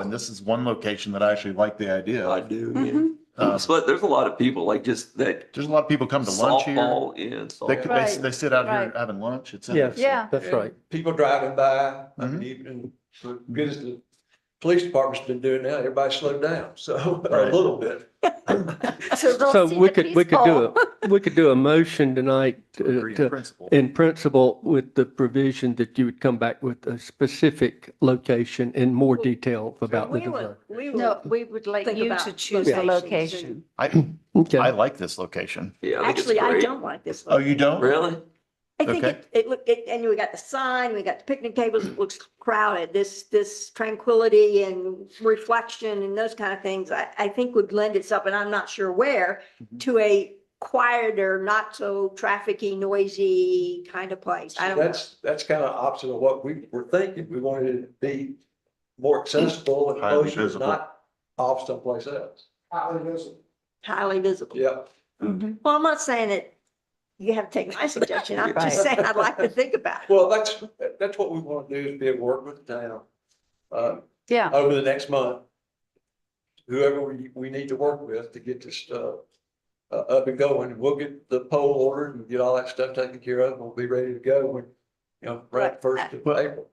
And this is one location that I actually like the idea. I of. do, Mm-hmm. Mhm. yeah. Uh, Um, But there's a lot of people like just that There's a lot of people come to lunch here. softball and They, could- softball. they, they sit out here Right. having lunch. It's. Yes. interesting. Yeah. That's right. People driving by, I Mhm. mean, even so good as the police department's been doing now, everybody slowed down, so a Right. little bit. So we could, we could do a, we could do a motion tonight to- Agree in to, principle. in principle with the provision that you would come back with a specific location in more detail about the We would, design. we No, would we would like think you about to choose the locations location. and- I, I Okay, like this location. Yeah, I think it's Actually, I great. don't like this. Oh, you don't? Really? I think okay. it, it look, it, and we got the sign, we got the picnic tables, it looks crowded. This, this tranquility and reflection and those kind of things, I, I think would lend itself, and I'm not sure where, Mhm. to a quieter, not so trafficky, noisy kind of place. I don't know. That's, that's kind of opposite of what we were thinking. We wanted it to be more accessible and Highly closer, visible. not off someplace else. highly visible. Yeah. Well, I'm not saying that you have to take my suggestion. I'm just Right. saying I'd like to think about it. Well, that's, that's what we want to do is be at work with the town, uh, Yeah, over the next month. Whoever we, we need to work with to get this, uh, uh, up and going, we'll get the poll ordered and get all that stuff taken care of, and we'll be ready to go when, you know, right Right. first of April.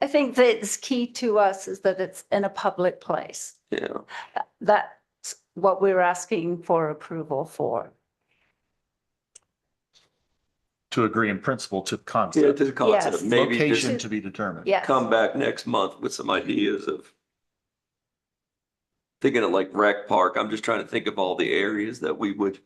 I think that's key to us is that it's in a public place. Yeah. That's what we're asking for approval for. To agree in principle to Yeah, concept. to the concept, Yes. maybe Location just to be determined. Yes. come back next month with some ideas of thinking of like rec park, I'm just trying to think of all the areas that we would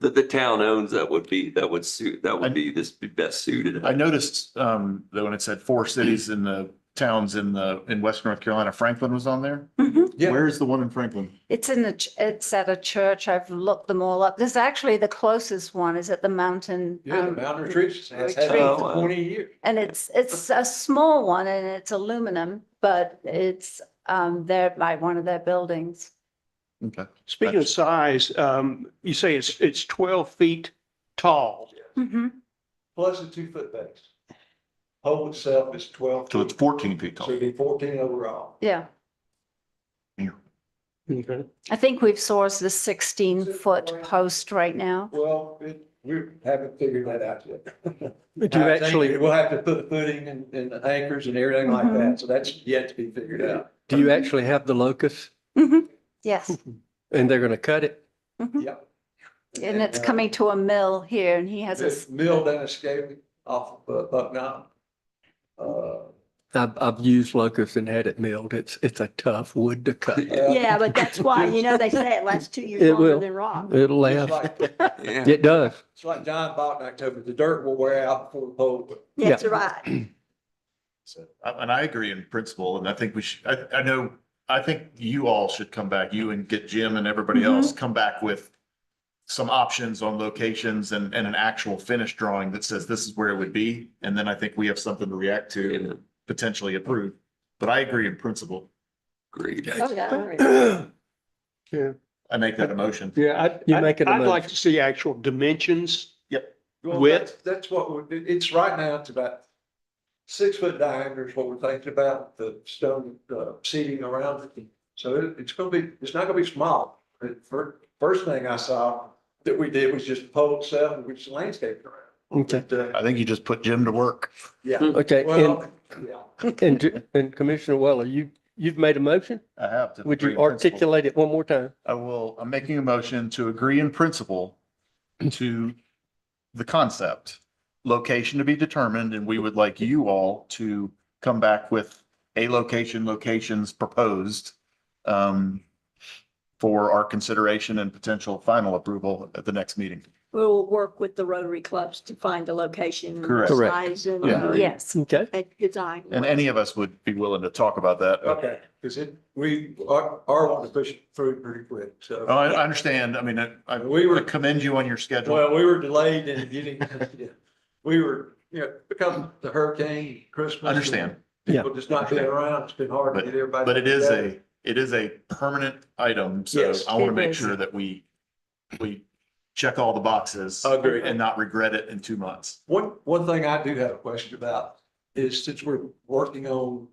that the town owns that would be, that would suit, that would be this be best suited. I noticed, um, that when it said four cities in the towns in the, in West North Carolina, Franklin was on there. Yeah. Where is the one in Franklin? Mm-hmm. It's in the, ch- it's at a church. I've looked them all up. This is actually the closest one is at the mountain. Yeah, the um, mountain retreats has had retreat. it uh, for twenty years. And it's, it's a small one and it's aluminum, but it's um, there by one of their buildings. Okay. Speaking of size, um, you say it's, it's twelve feet tall. Mm-hmm. Plus the two foot base. Pole itself is twelve. So it's feet, fourteen feet So tall. it'd be fourteen overall. Yeah, Okay. I think we've sourced the sixteen foot post right now. Well, it, we haven't figured that out yet. do Uh, you actually, Uh, We'll have to put footing and, and anchors and everything like Mhm. that, so that's yet to be figured out. do you actually have the locus Mhm. Yes, and they're going to cut it? and it's uh, coming to a mill here and he has a. This s- mill down in Scaly off of uh, Buck Mountain. Uh, I've, I've used locust and had it milled. It's, it's a tough wood to cut. yeah, Yeah, but that's why, you know, they say it lasts two years It longer will. than rock. It'll It's last. like, Yeah. It does. it's like John bought in October, the dirt will wear out before the pole. will. That's right. So, I- and I agree in principle, and I think we should, I, I know, I think you all should come back, you and get Jim and everybody Mm-hmm. Mhm. else, come back with some options on locations and, and an actual finished drawing that says this is where it would be. And then I think we have something to react to Yeah, and potentially approve. But I agree in principle. Agreed. Oh, yeah. I make that a motion. Yeah, I'd, You make I'd it a I'd like motion. to see actual dimensions. Well, Width? that's- That's what, we- it- it's right now, it's about six foot diameter is what we're thinking about, the stone uh, seating around it. So it- it's gonna be, it's not gonna be small. The fir- First thing I saw that we did was just pole itself, and we just landscaped around. Okay. But, uh, I think you just put Jim to work. Yeah, Okay. And, well, yeah. and, Ju- and Commissioner Weller, you, you've made a motion? I have to. Would agree you in principle. articulate it one more time? I will, I'm making a motion to agree in principle to the concept, location to be determined, and we would like you all to come back with a location, locations proposed um, for our consideration and potential final approval at the next meeting. We'll work with the Rotary clubs to find the location. Correct. Correct. Size and, Yeah. uh, Yes, Okay. and design. And any of us would be willing to talk about that. but- Okay, because it, we are, are wanting to push it through pretty quick, so. Oh, I, I understand. I mean, I, I We were- commend you on your schedule. Well, we were delayed in getting, yeah. we were, you know, because the hurricane, Christmas. Understand. People just not being around, it's been hard to But- get everybody. But it is together. a, it is a permanent item, so Yes. I want to It make is. sure that we, we check all the boxes. Agreed. And not regret it in two months. One, one thing I do have a question about is since we're working on